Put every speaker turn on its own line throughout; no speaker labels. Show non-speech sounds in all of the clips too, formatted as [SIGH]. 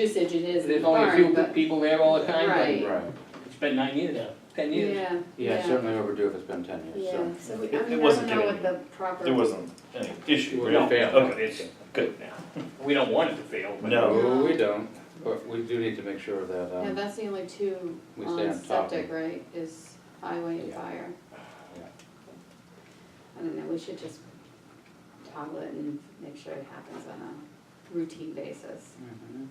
usage it is in
There's
the
only a few
barn,
pe-
but,
people there all the time,
Right.
but
Right,
it's been nine years now, ten years.
yeah,
yeah,
yeah,
certainly overdue if it's been ten years,
yeah,
so.
so we,
It-
I
it
mean, I don't
wasn't
know what
given-
the proper.
There wasn't any issue,
It
right?
No,
failed.
Okay, it's good now.
We don't want it to fail, but.
No.
No, we don't, but we do need to make sure that,
Yeah,
um,
that's the only two
We stay
on
on top of it.
septic, right, is highway and
Yeah.
fire.
Yeah.
I don't know, we should just toggle it and make sure it happens on a routine basis.
mhm.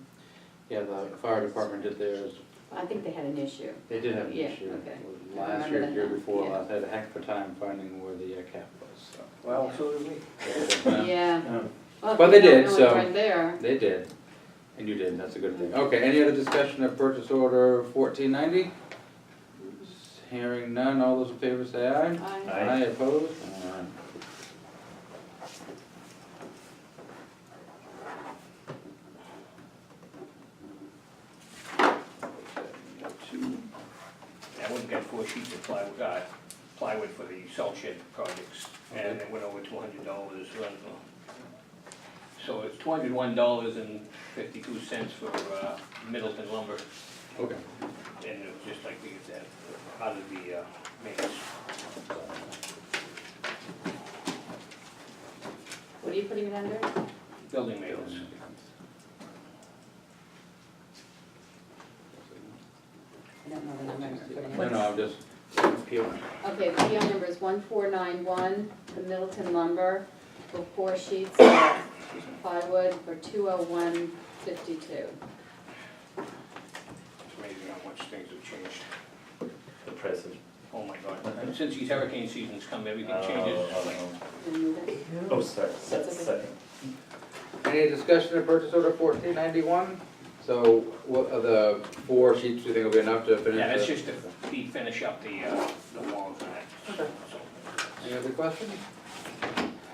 yeah, the fire department did theirs,
I think they had an issue,
they did have an
Yeah,
issue.
okay. I
Last
remember
year,
that
year
now,
before,
yeah.
last, had a heck of a time finding where the uh, cap was, so.
Well, so do
yeah.
we.
Yeah.
Well, if
But they
don't
did,
know it's
so-
Right there,
They did, and you did, that's a good thing. Okay, any other discussion of purchase order fourteen ninety? Hearing none, all those in favor say aye.
I,
Aye.
Aye, opposed? Alright.
That one's got four sheets of plywood, uh, plywood for the salt shed projects, and it went over two hundred dollars. uh, So it's two hundred one dollars and fifty-two cents for, uh, Middleton lumber,
Okay,
and it was just like we get that out of the, uh, maintenance.
what are you putting it under?
Building maintenance.
I don't know the number. I'm putting it
no,
under.
no, I'm just peeling.
Okay, PO number is one four nine one, the Middleton lumber, for four sheets of plywood for two oh one fifty-two.
It's amazing how much things have changed.
The present.
Oh, my God. And Since these hurricane seasons come, everything
Oh,
changes.
oh,
It
oh. Oh, sorry, se-
That's okay.
second.
Any discussion of purchase order fourteen ninety-one? So, what are the four sheets you think will be enough to finish?
Yeah, that's
the-
just to be, finish up the, uh, the walls and that. So,
Any other questions?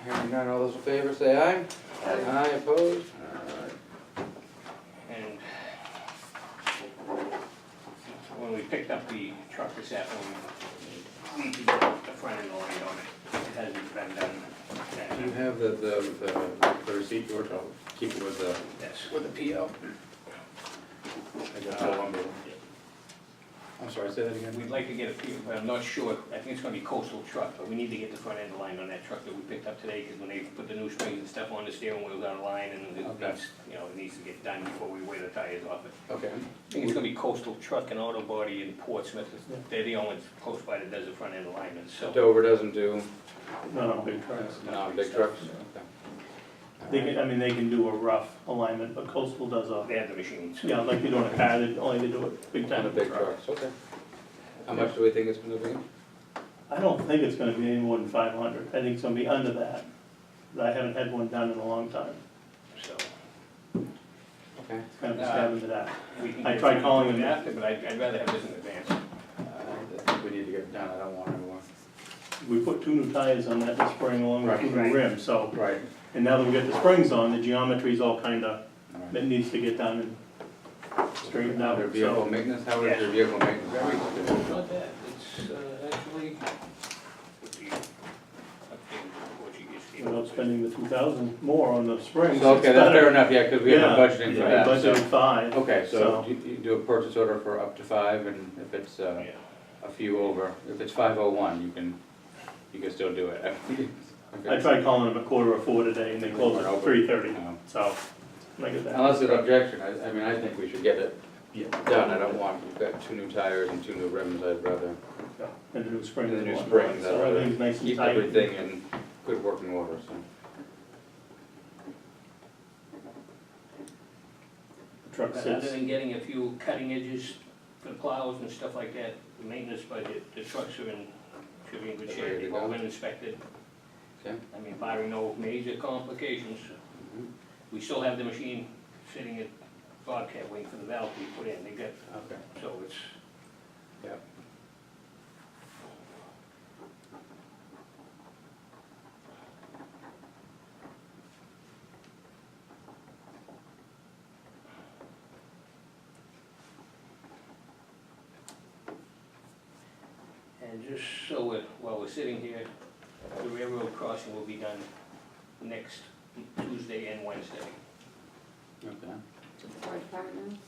Hearing none, all those in favor say aye.
Aye.
Aye, opposed? Alright.
And when we picked up the truck this afternoon, we needed to put the front end line on it. It hasn't been done.
Do you
And
have the, the, the- the receipt, George? I'll keep it with the,
That's with the PO.
I got the lumber. I'm sorry, say that again.
We'd like to get a PO, but I'm not sure. I think it's gonna be coastal truck, but we need to get the front end line on that truck that we picked up today, because when they put the new springs and stuff on, the steering wheel's out of line, and it
Okay.
needs, you know, it needs to get done before we wear the tires off it.
Okay,
I think it's gonna be Coastal Truck and Auto Body in Portsmouth, they're the only ones close by that does the front end alignment, so.
Dover doesn't do,
No, big
no, big trucks?
They
Okay.
can, I mean, they can do a rough alignment, but coastal does a,
They have the machines.
yeah, like they do on a car, they only they do it big
On
time.
the big trucks, okay. How much do we think it's gonna be?
I don't think it's gonna be any more than five hundred, I think it's gonna be under that, but I haven't had one done in a long time,
So,
Okay.
It's kind of a stab in the dark.
we can.
I tried calling them.
After, but I'd, I'd rather have this in advance.
Uh, I think we need to get it done, I don't want anyone.
We put two new tires on that this spring along with two
Right.
new rims, so,
Right.
and now that we got the springs on, the geometry's all kinda, it needs to get done and straightened out,
Your vehicle
so.
maintenance, how is your vehicle maintenance? Very good.
Not that, it's, uh, actually, with the, updated Portuguese people.
Without spending the two thousand more on the springs, it's
Okay, that's fair
better.
enough, yeah, because we have a
Yeah,
budgeting for
we
that, so.
Budgeted five.
Okay, so
So-
you you do a purchase order for up to five, and if it's uh,
Yeah.
a few over, if it's five oh one, you can, you can still do it. [LAUGHS]
I tried calling them a quarter of four today and they closed at three thirty,
Um,
so, look at that.
Unless there's objection, I, I mean, I think we should get it
Yeah.
done, I don't want, we've got two new tires and two new rims, I'd rather
And the new spring.
The new
and
spring,
whatnot,
that's
So everything's nice and
keep
tight.
everything in good working order, so.
Truck
But Other
sits,
than getting a few cutting edges for the plows and stuff like that, the maintenance budget, the trucks are in, should be in good
They're
shape,
ready to
they've all
go.
been inspected.
Okay.
I mean, barring no major complications,
Mhm.
we still have the machine sitting at Bobcat waiting for the valve to be put in, they got,
Okay.
so it's.
Yep.
And just so we're, while we're sitting here, the railroad crossing will be done next Tuesday and Wednesday.
Okay.
to the fire department now?